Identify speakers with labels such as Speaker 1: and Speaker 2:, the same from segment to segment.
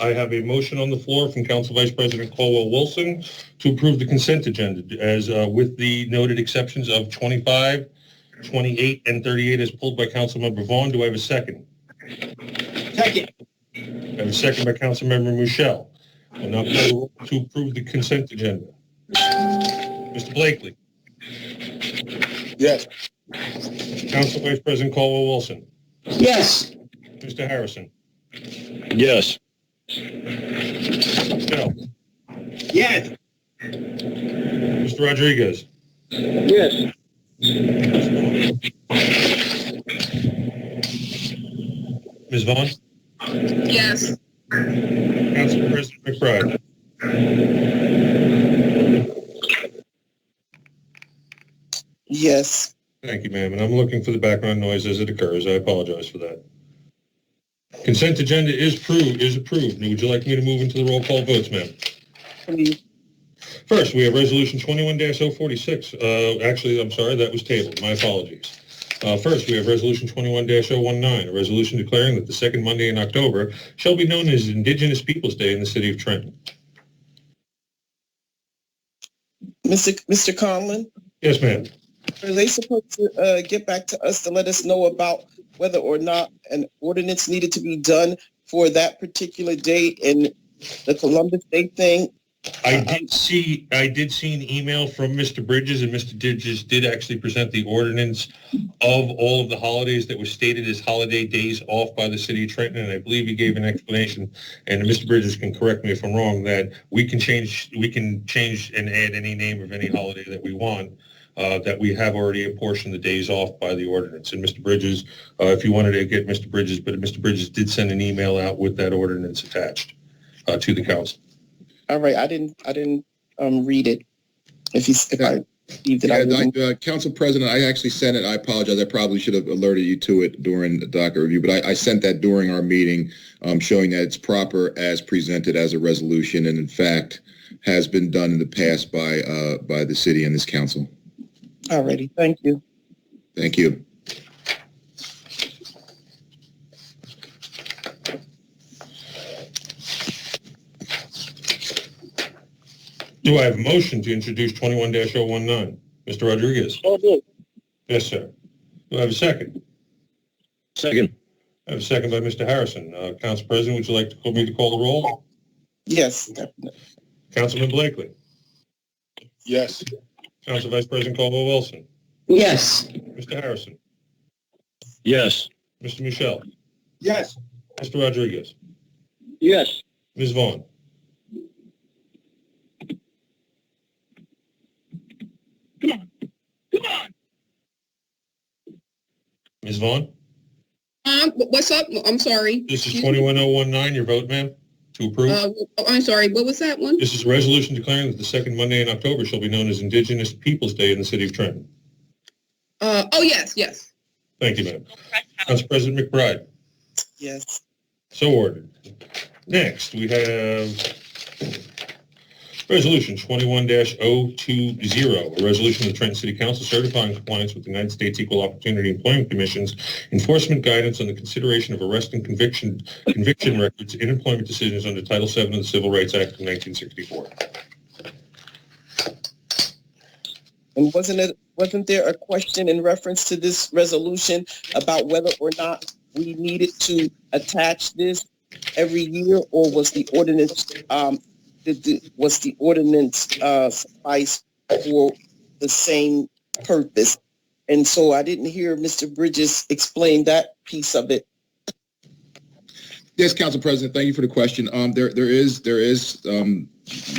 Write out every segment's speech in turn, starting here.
Speaker 1: I have a motion on the floor from Council Vice President Colwell Wilson to approve the consent agenda as uh, with the noted exceptions of 25, 28, and 38 as pulled by Councilmember Vaughn. Do I have a second?
Speaker 2: Second.
Speaker 1: I have a second by Councilmember Michelle. I'll now call the roll to approve the consent agenda. Mr. Blakely,
Speaker 2: Yes.
Speaker 1: Council Vice President Colwell Wilson,
Speaker 2: Yes.
Speaker 1: Mr. Harrison,
Speaker 3: Yes.
Speaker 1: Michelle,
Speaker 2: Yes.
Speaker 1: Mr. Rodriguez.
Speaker 2: Yes.
Speaker 1: Ms. Vaughn?
Speaker 4: Yes.
Speaker 1: Council President McBride.
Speaker 5: Yes,
Speaker 1: Thank you, ma'am, and I'm looking for the background noise as it occurs. I apologize for that. Consent agenda is approved, is approved. Now, Would you like me to move into the roll call votes, ma'am?
Speaker 5: please.
Speaker 1: First, we have Resolution 21-046. Uh, Actually, I'm sorry, that was tabled. My apologies. Uh, First, we have Resolution 21-019, a resolution declaring that the second Monday in October shall be known as Indigenous Peoples' Day in the city of Trenton.
Speaker 5: Mr. Mr. Conlon,
Speaker 1: Yes, ma'am.
Speaker 5: are they supposed to uh, get back to us to let us know about whether or not an ordinance needed to be done for that particular date and the Columbus Day thing?
Speaker 1: I did see, I did see an email from Mr. Bridges, and Mr. Bridges did actually present the ordinance of all of the holidays that were stated as holiday days off by the city of Trenton, and I believe he gave an explanation, and Mr. Bridges can correct me if I'm wrong, that we can change, we can change and add any name of any holiday that we want, uh, that we have already apportioned the days off by the ordinance. And Mr. Bridges, uh, if you wanted to get Mr. Bridges, but Mr. Bridges did send an email out with that ordinance attached uh, to the council.
Speaker 5: All right, I didn't, I didn't um, read it. If he's, if I received it, I
Speaker 6: Yeah,
Speaker 5: wouldn't.
Speaker 6: I- uh, Council President, I actually sent it, I apologize, I probably should have alerted you to it during the docket review, but I, I sent that during our meeting, um, showing that it's proper as presented as a resolution, and in fact, has been done in the past by, uh, by the city and this council.
Speaker 5: All righty, thank you.
Speaker 6: Thank you.
Speaker 1: Do I have a motion to introduce 21-019? Mr. Rodriguez?
Speaker 2: So moved.
Speaker 1: Yes, sir. Do I have a second?
Speaker 3: Second.
Speaker 1: I have a second by Mr. Harrison. Uh, Council President, would you like to call me to call the roll?
Speaker 5: Yes, definitely.
Speaker 1: Councilman Blakely.
Speaker 2: Yes.
Speaker 1: Council Vice President Caldwell Wilson.
Speaker 2: Yes.
Speaker 1: Mr. Harrison.
Speaker 3: Yes.
Speaker 1: Mr. Michelle.
Speaker 2: Yes.
Speaker 1: Mr. Rodriguez.
Speaker 2: Yes.
Speaker 1: Ms. Vaughn. Ms. Vaughn,
Speaker 4: Um, wh- what's up? I'm sorry.
Speaker 1: this is
Speaker 4: Excuse me.
Speaker 1: 21-019, your vote, ma'am, to approve.
Speaker 4: Uh, oh, I'm sorry. What was that one?
Speaker 1: This is a resolution declaring that the second Monday in October shall be known as Indigenous Peoples' Day in the city of Trenton.
Speaker 4: Uh, oh, yes, yes.
Speaker 1: Thank you, ma'am. Council President McBride,
Speaker 5: Yes,
Speaker 1: so ordered. Next, we have Resolution 21-020, a resolution of the Trenton City Council certifying compliance with the United States Equal Opportunity Employment Commission's enforcement guidance on the consideration of arrest and conviction, conviction records in employment decisions under Title VII of the Civil Rights Act of 1964.
Speaker 5: and wasn't it, wasn't there a question in reference to this resolution about whether or not we needed to attach this every year, or was the ordinance, um, did the, was the ordinance, uh, suffice for the same purpose? And so I didn't hear Mr. Bridges explain that piece of it.
Speaker 6: Yes, Council President, thank you for the question. Um, there, there is, there is, um,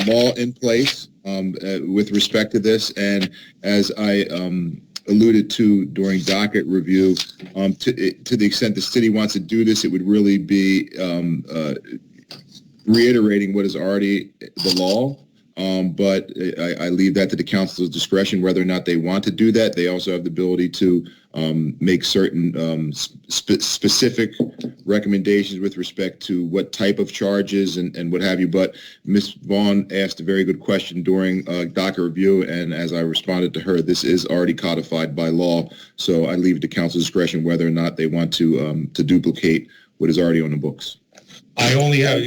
Speaker 6: law in place, um, uh, with respect to this. And as I, um, alluded to during docket review, um, to, to the extent the city wants to do this, it would really be, um, uh, reiterating what is already the law. Um, but I, I leave that to the council's discretion, whether or not they want to do that. They also have the ability to, um, make certain, um, spe- specific recommendations with respect to what type of charges and, and what have you. But Ms. Vaughn asked a very good question during uh, DACA review, and as I responded to her, this is already codified by law. So I leave it to council's discretion whether or not they want to um, to duplicate what is already on the books.
Speaker 1: I only have,